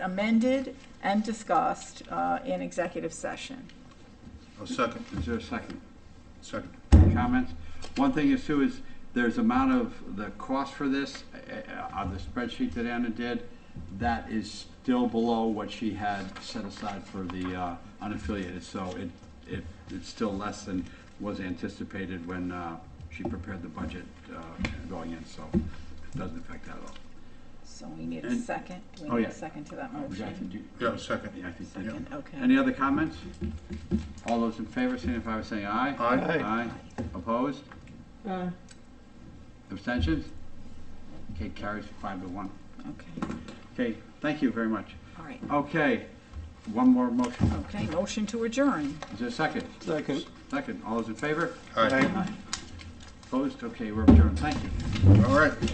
amended and discussed uh, in executive session. I'll second, Is there a second? second. Comments? One thing is too is, there's amount of the cost for this, uh, uh, on the spreadsheet that Anna did, that is still below what she had set aside for the uh, unaffiliated, so it, it, it's still less than was anticipated when uh, she prepared the budget uh, going in, so it doesn't affect that at all. So we need a And- second. Do oh, we need a yeah. second to that Would you like to motion? do- Yeah, second. Yeah, I think that- Second, okay. Any other comments? All those in favor signify by saying aye. Aye. Aye. Opposed? Aye. Abstentions? Okay, carries five to one. Okay, Okay, thank you very much. all right. Okay, one more motion. Okay, motion to adjourn. Is there a second? Second. Second, all those in favor? Aye. Opposed? Okay, we're adjourned. Thank you. All right.